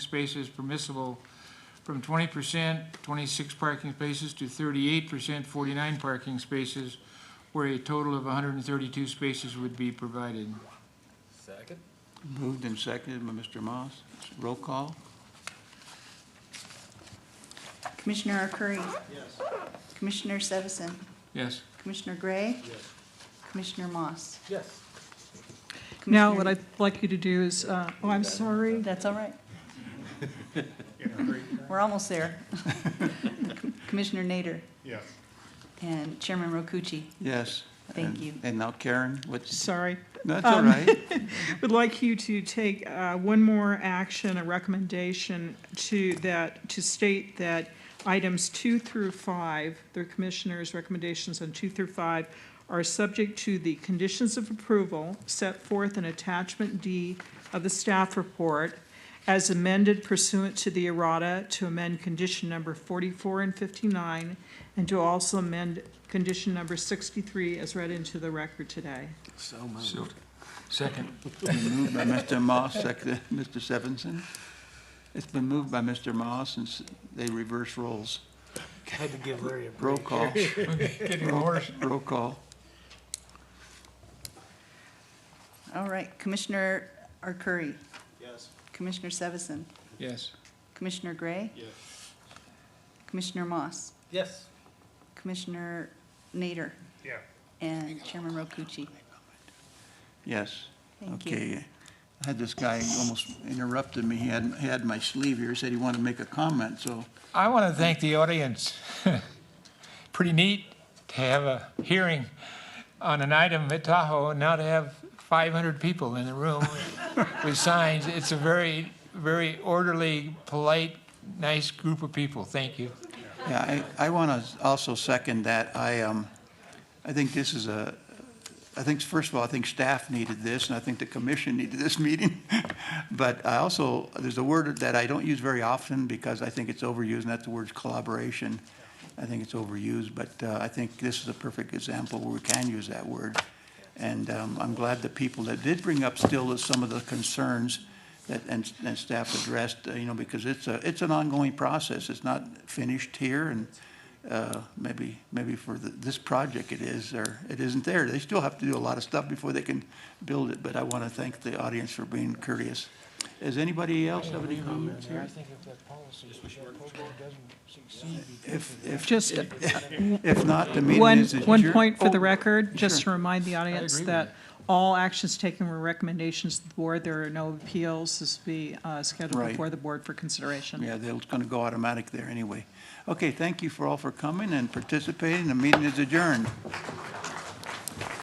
spaces permissible from twenty percent, twenty-six parking spaces, to thirty-eight percent, forty-nine parking spaces, where a total of hundred and thirty-two spaces would be provided. Second? Moved and seconded by Mr. Moss. Roll call? Commissioner Arcuri? Yes. Commissioner Sevison? Yes. Commissioner Gray? Commissioner Moss? Yes. Now, what Commissioner- I'd like you to do is, uh, oh, I'm sorry. That's all right. We're almost there. Commissioner Nader? Yes. And Chairman Rokucci? Yes. Thank And- you. And now Karen, what's, Sorry. that's all Um, right. Would like you to take uh, one more action, a recommendation to that, to state that items two through five, the commissioner's recommendations on two through five, are subject to the conditions of approval set forth in attachment D of the staff report as amended pursuant to the errata to amend condition number forty-four and fifty-nine, and to also amend condition number sixty-three as read into the record today. So, second. Moved by Mr. Moss, seconded by Mr. Stevenson. It's been moved by Mr. Moss and s- they reverse roles. Had to give Larry a Roll call. Getting worse. Roll call. All right, Commissioner Arcuri? Yes. Commissioner Sevison? Yes. Commissioner Gray? Yes. Commissioner Moss? Yes. Commissioner Nader? Yeah. And Chairman Rokucci? Yes. Thank you. Okay. I had this guy almost interrupted me. He had, he had my sleeve here, said he wanted to make a comment, so I want to thank the audience. Pretty neat to have a hearing on an item at Tahoe and now to have 500 people in the room with signs. It's a very, very orderly, polite, nice group of people. Thank you. Yeah, I, I want to also second that. I, um, I think this is a, I think, first of all, I think staff needed this, and I think the commission needed this meeting. But I also, there's a word that I don't use very often because I think it's overused, and that's the word collaboration. I think it's overused, but uh, I think this is a perfect example where we can use that word. And um, I'm glad the people that did bring up still is some of the concerns that, and, and staff addressed, uh, you know, because it's a, it's an ongoing process. It's not finished here and, uh, maybe, maybe for the, this project it is, or it isn't there. They still have to do a lot of stuff before they can build it, but I want to thank the audience for being courteous. Does anybody else have any comments here? think if that policy, doesn't succeed. If, if, Just if not, the meeting One, is adjourned. one point for Oh, the record, just to sure. remind the audience agree with that all actions taken were recommendations of the board. There are no appeals. This will be uh, scheduled Right. before the board for consideration. Yeah, they're going to go automatic there anyway. Okay, thank you for all for coming and participating. The meeting is adjourned.